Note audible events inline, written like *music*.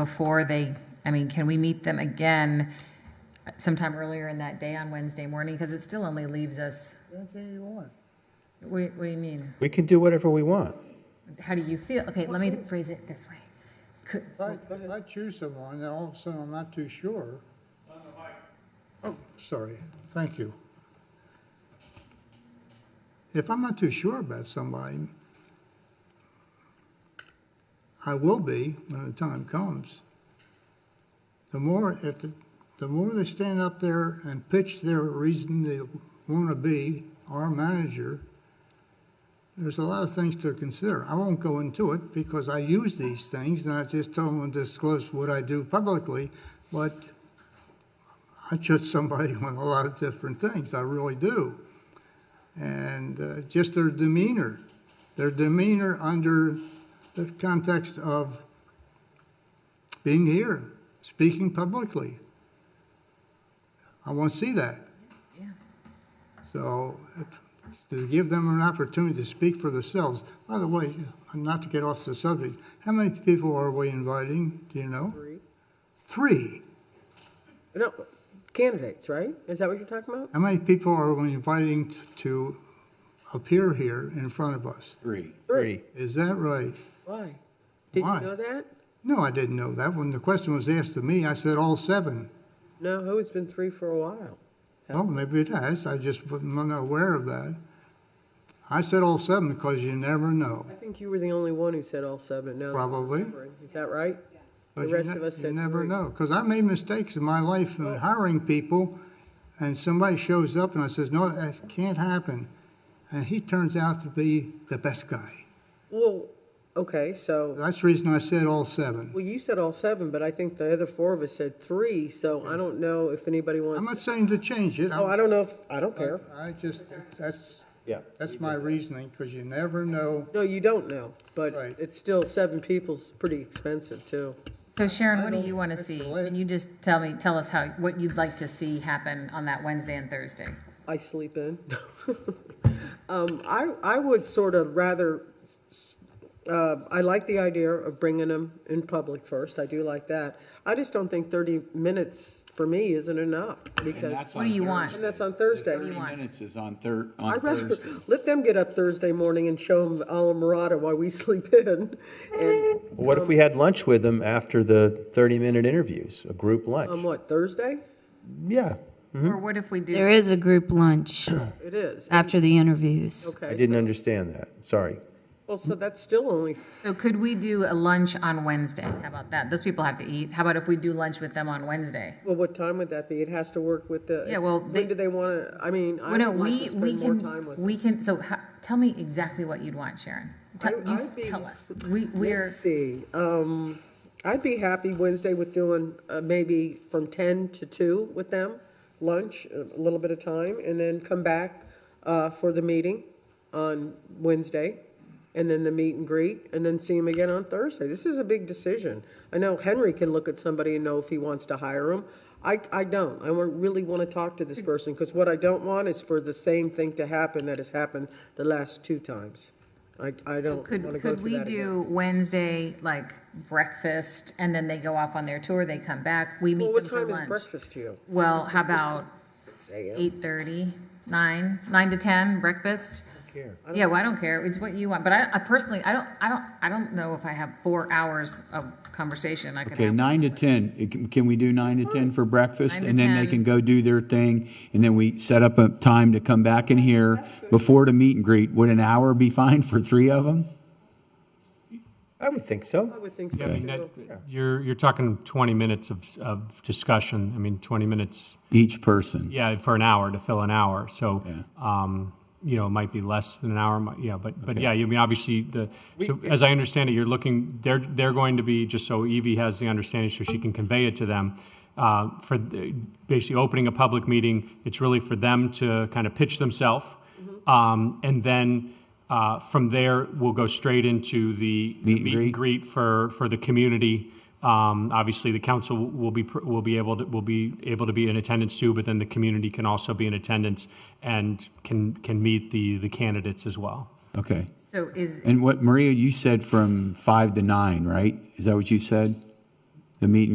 before they, I mean, can we meet them again sometime earlier in that day on Wednesday morning? Because it still only leaves us, Anything you want. what, what do you mean? We can do whatever we want. How do you feel? Okay, let me phrase it this way. Could, If I, if I choose someone, and all of a sudden I'm not too sure. Oh, sorry, thank you. If I'm not too sure about somebody, I will be when the time comes. The more, if, the the more they stand up there and pitch their reason they want to be our manager, there's a lot of things to consider. I won't go into it because I use these things and I just don't want to disclose what I do publicly, but I judge somebody *laughs* on a lot of different things. I really do. And uh, just their demeanor, their demeanor under the context of being here, speaking publicly. I won't see that. yeah, So if- to give them an opportunity to speak for themselves. By the way, not to get off the subject, how many people are we inviting? Do you know? Three. Three. No, candidates, right? Is that what you're talking about? How many people are we inviting t- to appear here in front of us? Three. Three. Is that right? Why? Did Why? you know that? No, I didn't know that. When the question was asked to me, I said all seven. No, oh, it's been three for a while. Well, maybe it has. I just wasn't aware of that. I said all seven because you never know. I think you were the only one who said all seven. No, Probably. Is that right? The But you rest ne- of us You said never three. know, because I made mistakes in my life in hiring people, and somebody shows up and I says, no, that can't happen. And he turns out to be the best guy. Well, okay, so, That's the reason I said all seven. well, you said all seven, but I think the other four of us said three, so I don't know if anybody I'm wants. not saying to change it. Oh, I don't know if, I don't care. I just, that's, Yeah. that's my reasoning, because you never know. No, you don't know, but Right. it's still seven people's pretty expensive too. So Sharon, what do I don't- you want to that's see? the way- Can you just tell me, tell us how, what you'd like to see happen on that Wednesday and Thursday? I sleep in. *laughs* um, I, I would sort of rather, s- uh, I like the idea of bringing them in public first. I do like that. I just don't think 30 minutes for me isn't enough And because, that's What on do you want? and Thursday. that's on The Thursday. Thirty want? minutes is on Thur, on I'd rather Thursday. let them get up Thursday morning and show them Alamorada while we *laughs* sleep in. And What if we had lunch with them after the 30-minute interviews, a group on lunch? Um, what, Thursday? Yeah, Mm-hmm. Or what if we do, There is a group lunch It is. after the interviews. I Okay. didn't understand that, sorry. Well, so that's still only, so could we do a lunch on Wednesday? How about that? Those people have to eat. How about if we do lunch with them on Wednesday? well, what time would that be? It has to work with the. Yeah, well, they- When do they want to, I mean, I Well, no, would like we, to we spend more time with can, we can, so ha- tell me exactly what you'd want, Sharon. Tell, I- you s- I'd be- tell *laughs* us. We, we're, Let's see, um, I'd be happy Wednesday with doing, uh, maybe from ten to two with them, lunch, a little bit of time, and then come back, uh, for the meeting on Wednesday, and then the meet and greet, and then see them again on Thursday. This is a big decision. I know Henry can look at somebody and know if he wants to hire him. I, I don't. I wa- really want to talk to this Hmm. person, because what I don't want is for the same thing to happen that has happened the last two times. I, I don't want to could, go could through we that again. do Wednesday, like breakfast, and then they go off on their tour, they come back, we Well, meet what them for time is lunch? breakfast to you? Well, how about eight thirty, nine, nine to ten, breakfast? Yeah, well, I don't care. It's what you want, but I, I personally, I don't, I don't, I don't know if I have four hours of conversation I could Okay, have. nine to 10. It can- Can we do nine to 10 for breakfast? Nine to And then they 10. can go do their thing, and then we set up a time to come back in here before the meet and greet. Would an hour be fine for three of them? I would think so. I would think so, Yeah, I mean, too. that, you're, you're talking 20 minutes of, s- of discussion. I mean, 20 minutes, Each person? yeah, for an hour, to fill an hour. So, Yeah. um, you know, it might be less than an hour, might- yeah, but, but Okay. yeah, I mean, obviously, the, so as I understand it, you're looking, they're, they're going to be, just so Evie has the understanding, so she can convey it to them, uh, for the- basically opening a public meeting, it's really for them to kind of pitch themselves. Mm-hmm. Um, and then, uh, from there, we'll go straight into the Meet and and greet. greet for, for the community. Um, Obviously, the council will be, pr- will be able to, will be able to be in attendance too, but then the community can also be in attendance and can, can meet the, the candidates as well. Okay. So is, And what, Maria, you said from five to nine, right? Is that what you said? the meet and